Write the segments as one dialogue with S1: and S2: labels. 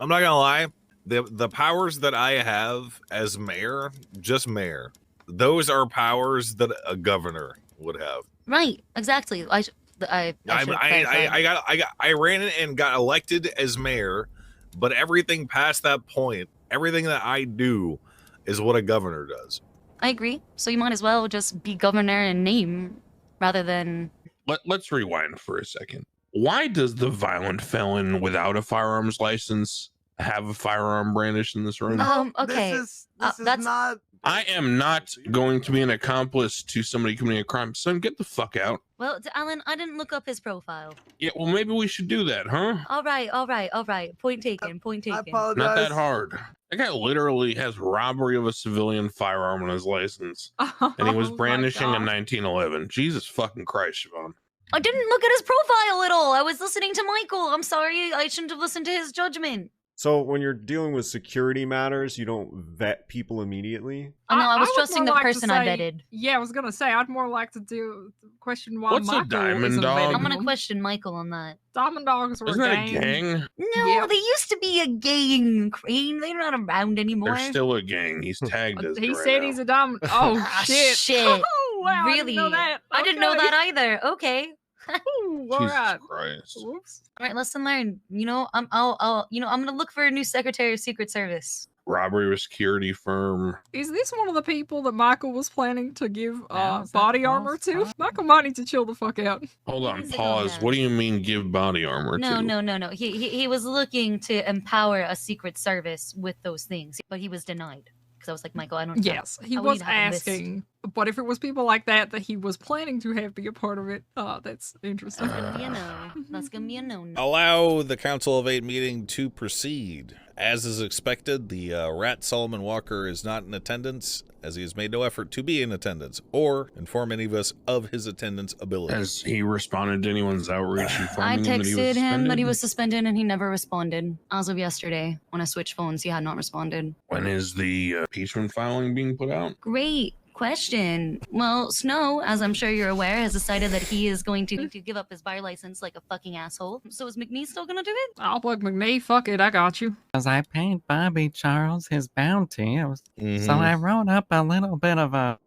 S1: I'm not gonna lie. The the powers that I have as mayor, just mayor, those are powers that a governor would have.
S2: Right, exactly. I, sh- I, I,
S1: I, I,
S2: should
S1: I,
S2: clarify.
S1: I got I got I ran it and got elected as mayor, but everything past that point, everything that I do is what a governor does.
S2: I agree. So you might as well just be governor in name rather than
S3: Let, let's rewind for a second. Why does the violent felon without a firearms license have a firearm brandished in this room?
S2: Uh, Um, okay.
S4: This is,
S2: Uh,
S4: this is
S2: that's-
S4: not.
S3: I am not going to be an accomplice to somebody committing a crime. Son, get the fuck out.
S2: Well, d- Alan, I didn't look up his profile.
S3: Yeah, well, maybe we should do that, huh?
S2: All right, all right, all right.
S5: Uh,
S2: Point taken. Point
S4: I
S2: taken.
S4: apologize.
S3: Not that hard. That guy literally has robbery of a civilian firearm on his license, and he was
S5: Oh my
S3: brandishing a
S5: God.
S3: 1911. Jesus fucking Christ, Siobhan.
S2: I didn't look at his profile at all. I was listening to Michael. I'm sorry. I shouldn't have listened to his judgment.
S6: So when you're dealing with security matters, you don't vet people immediately.
S2: I know. I, was
S5: would
S2: trusting
S5: more
S2: the
S5: like to
S2: person I
S5: say-
S2: vetted.
S5: Yeah, I was gonna say I'd more like to do question why
S3: What's a
S5: Michael
S3: diamond
S5: isn't
S3: dog?
S5: vetting
S2: I'm gonna
S5: them.
S2: question Michael on that.
S5: Diamond dogs were
S3: Isn't
S5: a
S3: that a
S5: gang.
S3: gang?
S2: No,
S5: Yep.
S2: they used to be a gang, Crane. They're not around anymore.
S3: They're still a gang. He's tagged
S5: Uh,
S3: as.
S5: He
S3: it right
S5: said
S3: now.
S5: he's a diamond. Oh
S2: Ah,
S5: shit!
S2: shit.
S5: Oh, wow, I didn't know
S2: Really?
S5: that.
S2: I didn't know
S5: Okay.
S2: that either. Okay.
S5: Ooh, all
S3: Jesus
S5: right.
S3: Christ.
S5: Whoops.
S2: All right. Lesson learned. You know, I'm. I'll. I'll. You know, I'm gonna look for a new secretary of Secret Service.
S3: Robbery of security firm.
S5: Is this one of the people that Michael was planning to give uh,
S7: is that
S5: body
S7: false?
S5: armor to?
S7: Oh.
S5: Michael might need to chill the fuck out.
S3: Hold on,
S2: is it on
S3: pause.
S2: that?
S3: What do you mean give body armor
S2: No,
S3: to?
S2: no, no, no. He, he he was looking to empower a Secret Service with those things, but he was denied because I was like, Michael, I don't. know.
S5: Yes, he
S2: I would
S5: was
S2: need to Oh, have a list.
S5: asking. But if it was people like that that he was planning to have be a part of it, uh, that's interesting.
S2: That's gonna be a no. That's gonna be a no. no.
S8: Allow the Council of Eight meeting to proceed. As is expected, the uh, rat Solomon Walker is not in attendance, as he has made no effort to be in attendance or inform any of us of his attendance ability.
S3: Has he responded to anyone's outreach?
S2: I
S3: informing
S2: texted him that he
S3: suspended?
S2: was suspended and he never responded. As of yesterday, when I switched phones, he had not responded.
S3: When is the uh, impeachment filing being put out?
S2: Great question. Well, Snow, as I'm sure you're aware, has decided that he is going to, to give up his bar license like a fucking asshole. So is McNeese still gonna do it?
S5: I'll plug McNee. Fuck it, I got you.
S7: Because I paid Bobby Charles his bounty. It was
S1: Mm-hmm.
S7: So I wrote up a little bit of a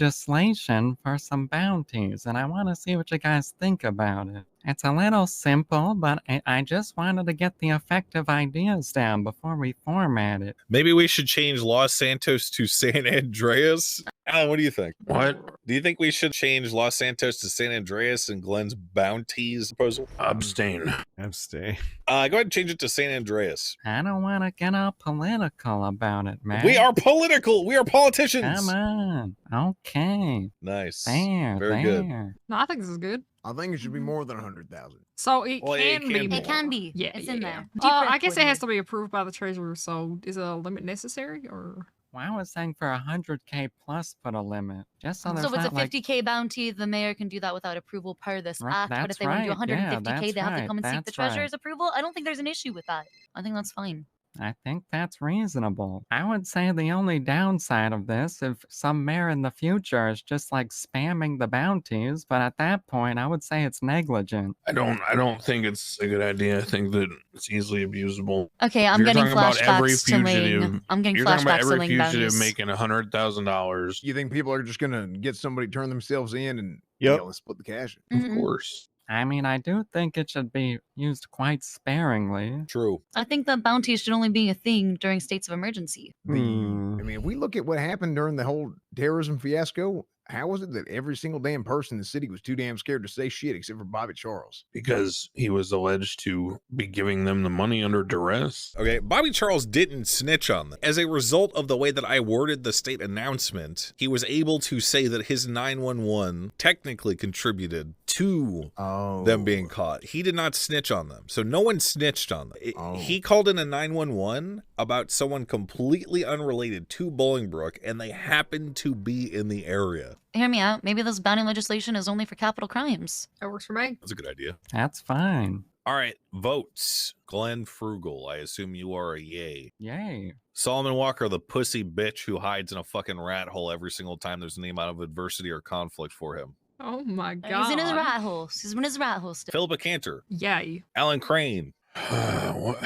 S7: legislation for some bounties, and I want to see what you guys think about it. It's a little simple, but I, I just wanted to get the effective ideas down before we format it.
S1: Maybe we should change Los Santos to San Andreas. Alan, what do you think?
S3: What?
S1: Do you think we should change Los Santos to San Andreas and Glenn's bounties proposal?
S3: Abstain.
S6: Abstain.
S1: Uh, go ahead and change it to San Andreas.
S7: I don't want to get all political about it, man.
S1: We are political. We are politicians.
S7: Come on. Okay.
S1: Nice.
S7: There.
S1: Very good.
S7: there.
S5: No, I think this is good.
S4: I think it should be more than 100,000.
S5: So it,
S1: Well, yeah, it
S5: can, be
S1: can be.
S2: Mm-hmm.
S5: more.
S2: It can be.
S5: Yeah,
S2: it's
S5: yeah,
S2: in
S5: yeah.
S2: there. Deep
S5: Uh,
S2: breath,
S5: I guess it
S2: would
S5: has
S2: you?
S5: to be approved by the treasurer. So is a limit necessary or?
S7: Well, I was saying for 100K plus put a limit. Just so there's
S2: So it's a
S7: not like
S2: 50k bounty. The mayor can do that without approval per this
S7: Right,
S2: act. But
S7: that's
S2: if they want to
S7: right,
S2: do
S7: yeah,
S2: 150k, they
S7: that's
S2: have to
S7: right,
S2: come and seek the
S7: that's right.
S2: treasurer's approval. I don't think there's an issue with that. I think that's fine.
S7: I think that's reasonable. I would say the only downside of this, if some mayor in the future is just like spamming the bounties, but at that point, I would say it's negligent.
S3: I don't. I don't think it's a good idea. I think that it's easily abusable.
S2: Okay, I'm
S3: You're
S2: getting
S3: talking about every
S2: flashbacks to Ling.
S3: fugitive-
S2: I'm getting
S3: You're talking about
S2: flashbacks to
S3: every
S2: Ling
S3: fugitive
S2: bounties.
S3: making a hundred thousand dollars.
S4: You think people are just going to get somebody, to turn themselves in, and
S6: Yep.
S4: deal and split the cash?
S3: Of
S2: Mhm.
S3: course.
S7: I mean, I do think it should be used quite sparingly.
S8: True.
S2: I think that bounties should only be a thing during states of emergency.
S4: The, I
S7: Hmm.
S4: mean, if we look at what happened during the whole terrorism fiasco, how was it that every single damn person in the city was too damn scared to say shit except for Bobby Charles?
S3: Because he was alleged to be giving them the money under duress.
S8: Okay, Bobby Charles didn't snitch on them. As a result of the way that I worded the state announcement, he was able to say that his 911 technically contributed to
S4: Oh,
S8: them being caught. He did not snitch on them. So no one snitched on them. It-
S4: Oh.
S8: He called in a 911 about someone completely unrelated to Bolingbrook and they happened to be in the area.
S2: Hear me out. Maybe this bounty legislation is only for capital crimes.
S5: That works for me.
S8: That's a good idea.
S7: That's fine.
S8: All right, votes. Glenn Frugal, I assume you are a yay.
S7: Yay.
S8: Solomon Walker, the pussy bitch who hides in a fucking rat hole every single time there's any amount of adversity or conflict for him.
S5: Oh my
S2: Uh,
S5: god.
S2: He's in his rat hole. He's in his rat hole still.
S8: Philippa Cantor,
S5: Yay.
S4: Oh.
S8: Alan Crane,
S3: what?